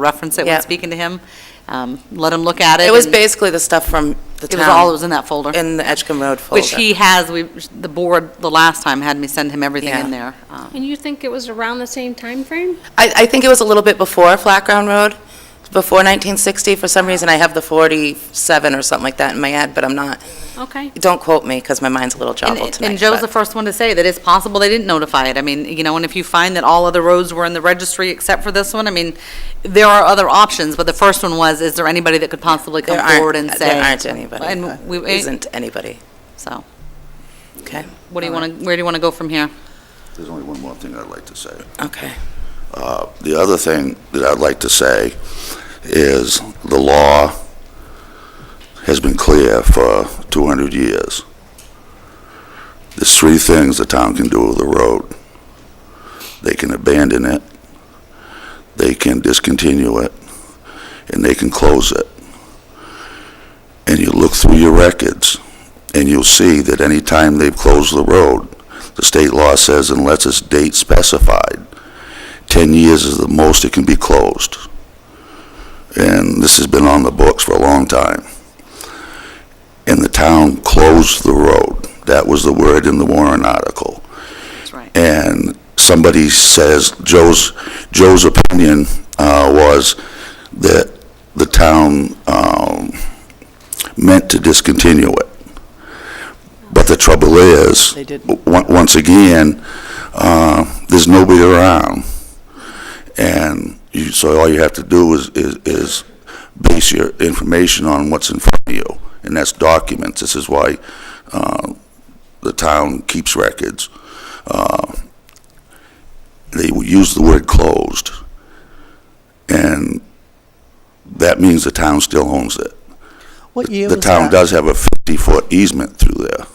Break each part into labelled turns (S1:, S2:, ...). S1: reference it when
S2: Yeah.
S1: speaking to him. Um, Let him look at it.
S2: It was
S1: and
S2: basically the stuff from the
S1: It
S2: town.
S1: was all that was in that folder.
S2: In the Edgecombe Road folder.
S1: Which he has, we, the board, the last time had me send him everything in there.
S2: Yeah.
S1: Uh,
S3: And you think it was around the same time frame?
S2: I, I think it was a little bit before Flat Ground Road, before 1960. For some reason, I have the 47 or something like that in my head, but I'm not,
S3: Okay.
S2: don't quote me, because my mind's a little jumbled
S1: And
S2: tonight.
S1: and Joe's
S2: but-
S1: the first one to say that it's possible they didn't notify it. I mean, you know, and if you find that all other roads were in the registry except for this one, I mean, there are other options, but the first one was, is there anybody that could possibly come
S2: There aren't-
S1: forward and say?
S2: There aren't anybody.
S1: And we,
S2: There Isn't anybody,
S1: so,
S2: okay?
S1: what do you want to, where do you want to go from here?
S4: There's only one more thing I'd like to say.
S2: Okay.
S4: Uh, The other thing that I'd like to say is the law has been clear for 200 years. There's three things the town can do with the road. They can abandon it, they can discontinue it, and they can close it. And you look through your records, and you'll see that any time they've closed the road, the state law says unless it's date specified, 10 years is the most it can be closed. And this has been on the books for a long time. And the town closed the road. That was the word in the Warren article.
S1: That's right.
S4: And somebody says, Joe's, Joe's opinion uh, was that the town um, meant to discontinue it. But the trouble is,
S5: They didn't.
S4: on- once again, uh, there's nobody around. And you, so all you have to do is, is, is base your information on what's in front of you, and that's documents. This is why, uh, the town keeps records. Uh, They use the word closed, and that means the town still owns it.
S5: What year
S4: The
S5: was
S4: town
S5: that?
S4: does have a fifty-foot easement through there,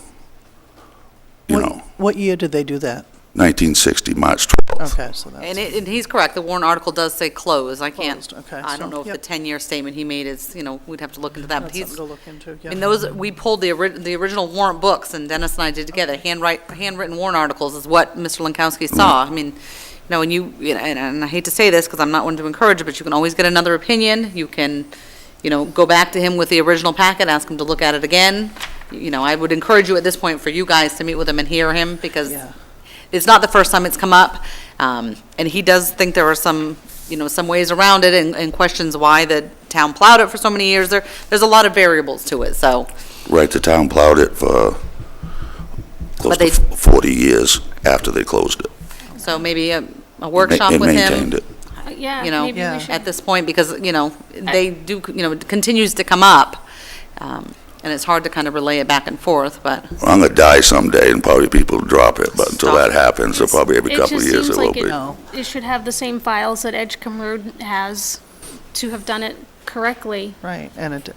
S4: you
S5: What-
S4: know,
S5: What year did they do that?
S4: nineteen sixty, March twelfth.
S5: Okay, so that's.
S1: And it, and he's correct, the Warren article does say close, I can't,
S5: Closed, okay,
S1: I don't
S5: so-
S1: know if the
S5: yep.
S1: 10-year statement he made is, you know, we'd have to look into that, but
S5: That's
S1: he's.
S5: something to look into,
S1: I mean,
S5: yeah.
S1: those, we pulled the, ori- the original warrant books, and Dennis and I did together, handwrite, handwritten warrant articles is what Mr. Lankowski saw.
S5: Mm-hmm.
S1: I mean, you know, and you, you know, and and I hate to say this, because I'm not one to encourage it, but you can always get another opinion. You can, you know, go back to him with the original packet, ask him to look at it again. You know, I would encourage you at this point for you guys to meet with him and hear him, because
S5: Yeah.
S1: it's not the first time it's come up, um, and he does think there are some, you know, some ways around it and, and questions why the town plowed it for so many years. There, there's a lot of variables to it, so,
S4: Right, the town plowed it for close
S1: But
S4: to
S1: they-
S4: f- forty years after they closed it.
S1: so maybe a, a
S4: Ma-
S1: workshop
S4: and
S1: with
S4: maintained
S1: him,
S4: it.
S3: Uh, Yeah,
S1: you know,
S3: maybe
S5: Yeah.
S3: we should.
S1: at this point, because, you know, they do, you know, it continues to come up, um, and it's hard to kind of relay it back and forth, but.
S4: I'm gonna die someday and probably people drop it, but until
S1: Stop.
S4: that happens, so probably every
S3: It
S4: couple of
S3: just
S4: years
S3: seems
S4: it will
S3: like
S4: be.
S5: No.
S3: It should have the same files that Edgecombe Road has to have done it correctly,
S5: Right, and it,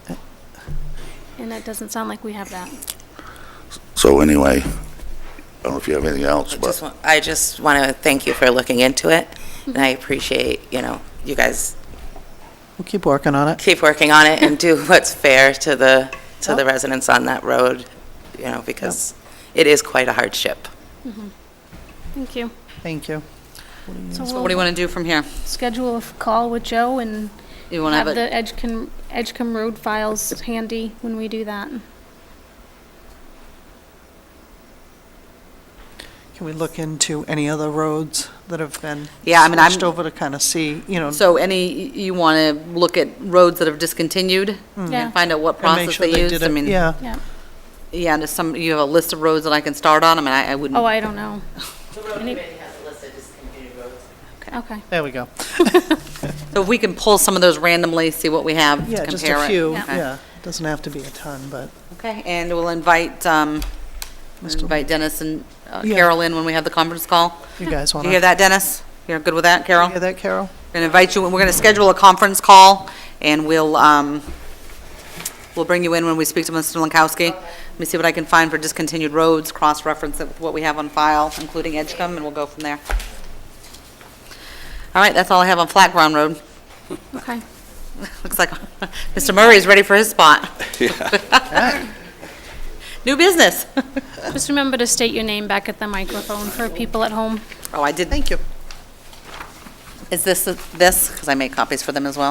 S3: and that doesn't sound like we have that.
S4: So anyway, I don't know if you have anything else,
S2: I
S4: but.
S2: just want- I just want to thank you for looking into it, and I appreciate, you know, you guys
S5: we'll keep working on it.
S2: keep working on it and do what's fair to the, to the
S5: Yep.
S2: residents on that road, you know, because it is quite a hardship.
S3: Thank you.
S5: Thank you.
S3: So
S1: What do you
S3: we'll
S1: want to do from here?
S3: schedule a call with Joe and
S1: You want to
S3: have
S1: have a,
S3: the Edgecombe, Edgecombe Road files handy when we do that.
S5: Can we look into any other roads that have been
S1: Yeah, I mean, I'm-
S5: switched over to kind of see, you know,
S1: so any, you want to look at roads that have discontinued?
S3: Yeah.
S1: And find out what
S5: Hmm. and make
S1: process
S5: sure
S1: they
S5: they did
S1: used, I
S5: it,
S1: mean.
S5: yeah.
S3: Yeah.
S1: Yeah, and if some, you have a list of roads that I can start on, I mean, I I wouldn't.
S3: Oh, I don't know.
S2: The road
S3: Any-
S2: has it listed as community roads.
S3: Okay.
S5: There we go.
S1: So if we can pull some of those randomly, see what we have to compare
S5: Yeah,
S1: it.
S5: just a few,
S3: Yeah.
S5: yeah. Doesn't have to be a ton, but
S1: Okay, and we'll invite, um, we'll
S5: Mr.
S1: invite Dennis and uh,
S5: Yeah.
S1: Carol in when we have the conference call.
S5: you guys want
S1: Do
S5: to.
S1: you hear that, Dennis? You're good with that, Carol?
S5: Hear that, Carol?
S1: going to invite you, and we're going to schedule a conference call, and we'll, um, we'll bring you in when we speak to Mr. Lankowski. Let me see what I can find for discontinued roads, cross-reference it with what we have on file, including Edgecombe, and we'll go from there. All right, that's all I have on Flat Ground Road.
S3: Okay.
S1: Looks like Mr. Murray's ready for his spot. New business.
S3: Just remember to state your name back at the microphone for people at home.
S1: Oh, I did,
S5: Thank you.
S1: Is this, this, because I made copies for them as well?